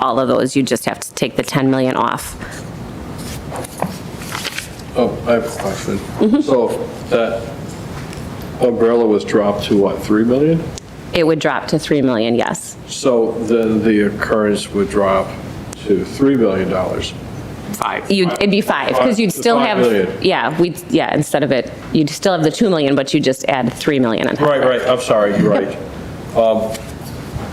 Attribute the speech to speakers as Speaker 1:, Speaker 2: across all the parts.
Speaker 1: all of those, you just have to take the 10 million off.
Speaker 2: Oh, I have a question. So that umbrella was dropped to what, 3 million?
Speaker 1: It would drop to 3 million, yes.
Speaker 2: So then the occurrence would drop to $3 million.
Speaker 3: Five.
Speaker 1: You, it'd be five, because you'd
Speaker 2: Five-
Speaker 1: still
Speaker 2: five million.
Speaker 1: have, yeah, we, yeah, instead of it, you'd still have the 2 million, but you just add 3 million on top.
Speaker 2: Right, right, I'm sorry, you're right. Um,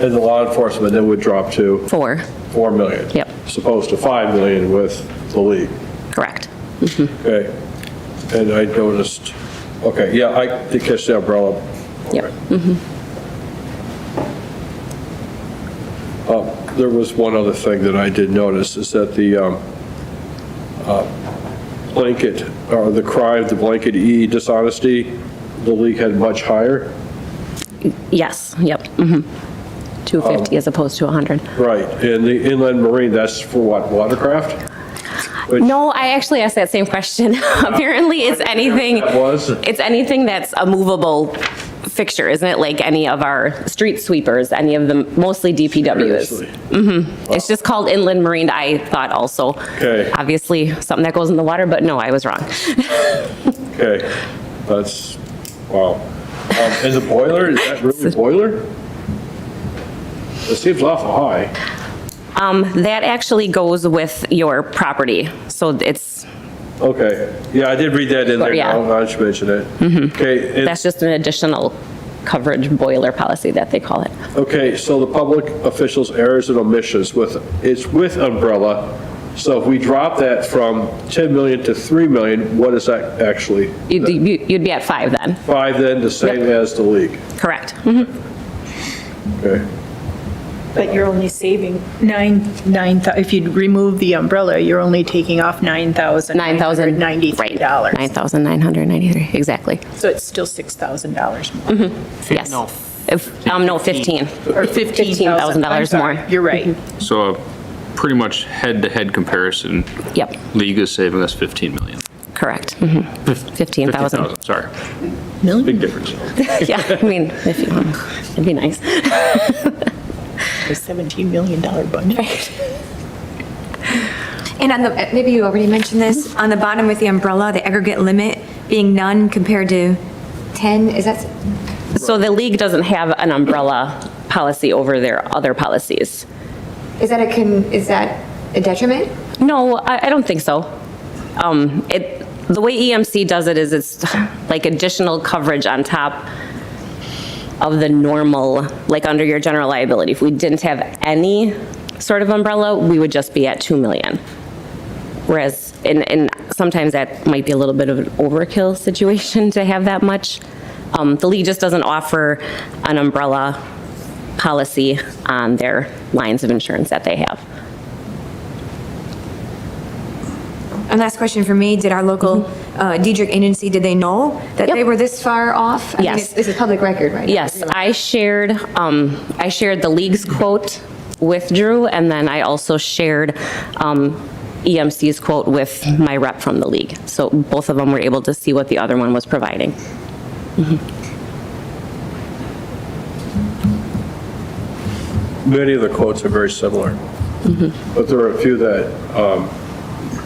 Speaker 2: And the law enforcement then would drop to
Speaker 1: Four,
Speaker 2: 4 million.
Speaker 1: Yep.
Speaker 2: as Opposed to 5 million with the league.
Speaker 1: correct.
Speaker 2: Okay. And I noticed, okay, yeah, I did catch the umbrella.
Speaker 1: Yep.
Speaker 2: Okay. Um, There was one other thing that I did notice, is that the um, uh, blanket, or the cry of the blanket E dishonesty, the league had much higher.
Speaker 1: Yes, yep, mhm.
Speaker 2: Um,
Speaker 1: 250 as opposed to 100.
Speaker 2: Right, and the inland marine, that's for what, watercraft? Which-
Speaker 1: No, I actually asked that same question. Apparently, it's anything.
Speaker 2: That was?
Speaker 1: It's anything that's a movable fixture, isn't it? Like any of our street sweepers, any of them, mostly DPWs.
Speaker 2: Seriously.
Speaker 1: It's just called inland marine, I thought also.
Speaker 2: Okay.
Speaker 1: Obviously, something that goes in the water, but no, I was wrong.
Speaker 2: Okay, that's, wow. Um, And the boiler, is that really boiler? It seems awful high.
Speaker 1: Um, that actually goes with your property, so it's,
Speaker 2: Okay, yeah, I did read that in there,
Speaker 1: Yeah. Mm-hmm.
Speaker 2: now I should mention it. Okay, and-
Speaker 1: that's just an additional coverage boiler policy that they call it.
Speaker 2: okay, so the public officials' errors and omissions with, it's with umbrella. So if we drop that from 10 million to 3 million, what is that actually?
Speaker 1: You'd, you'd be at five then,
Speaker 2: Five then, the same
Speaker 1: Yep.
Speaker 2: as the league,
Speaker 1: correct?
Speaker 4: Mm-hmm.
Speaker 1: Mhm.
Speaker 2: okay?
Speaker 4: But you're only saving nine, nine, thou- if you remove the umbrella, you're only taking off nine thousand nine hundred
Speaker 1: 9,000.
Speaker 4: ninety-three dollars.
Speaker 1: Right, 9,993, exactly.
Speaker 4: So it's still $6,000 more,
Speaker 1: Yes.
Speaker 3: No.
Speaker 1: If- Um, no, 15.
Speaker 4: or $15,000.
Speaker 1: $15,000
Speaker 4: I'm sorry,
Speaker 1: more.
Speaker 4: You're right.
Speaker 3: So a pretty much head-to-head comparison.
Speaker 1: Yep,
Speaker 3: League is saving us 15 million.
Speaker 1: correct. Mhm. 15,000.
Speaker 3: 50,000, Sorry.
Speaker 4: Million?
Speaker 3: Big difference.
Speaker 1: Yeah, I mean, if you want, it'd be nice.
Speaker 4: A $17 million budget.
Speaker 5: And on the, maybe you already mentioned this, on the bottom with the umbrella, the aggregate limit being none compared to 10, is that,
Speaker 1: So the league doesn't have an umbrella policy over their other policies?
Speaker 5: is that a, con- is that a detriment?
Speaker 1: No, I, I don't think so. Um, it, the way EMC does it is it's like additional coverage on top of the normal, like under your general liability. If we didn't have any sort of umbrella, we would just be at 2 million. Whereas, and, and sometimes that might be a little bit of an overkill situation to have that much. Um, the league just doesn't offer an umbrella policy on their lines of insurance that they have.
Speaker 5: And last question for me, did our local uh, Diedrich agency, did they know that
Speaker 1: Mm-hmm. Yep.
Speaker 5: they were this far off? I mean,
Speaker 1: Yes.
Speaker 5: it's- This is public record, right?
Speaker 1: Yes, I shared, um, I shared the league's quote with Drew, and then I also shared, um, EMC's quote with my rep from the league. So both of them were able to see what the other one was providing.
Speaker 2: Many of the quotes are very similar, but there are a few that um,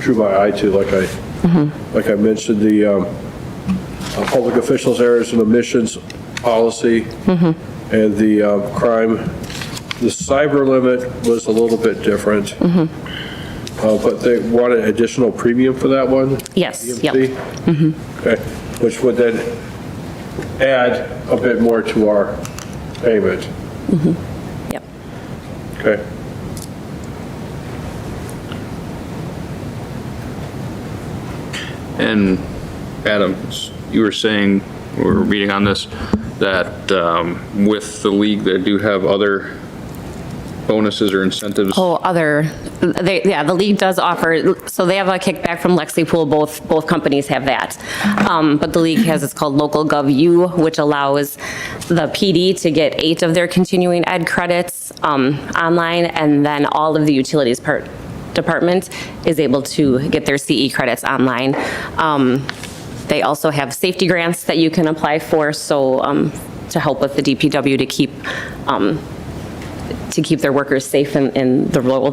Speaker 2: drew my eye to, like I, like I mentioned, the um, uh, public officials' errors and omissions policy, and the uh, crime, the cyber limit was a little bit different, Uh, but they wanted additional premium for that one?
Speaker 1: Yes, yep.
Speaker 2: EMC? Okay, which would then add a bit more to our payment,
Speaker 1: Yep.
Speaker 2: okay?
Speaker 3: And Adam, s- you were saying, we were reading on this, that um, with the league, they do have other bonuses or incentives.
Speaker 1: Oh, other, they, yeah, the league does offer, so they have a kickback from Lexipol, both, both companies have that. Um, But the league has, it's called Local Gov U, which allows the PD to get eight of their continuing ed credits um, online, and then all of the utilities part, department is able to get their CE credits online. Um, They also have safety grants that you can apply for, so um, to help with the DPW to keep, um, to keep their workers safe in, in the role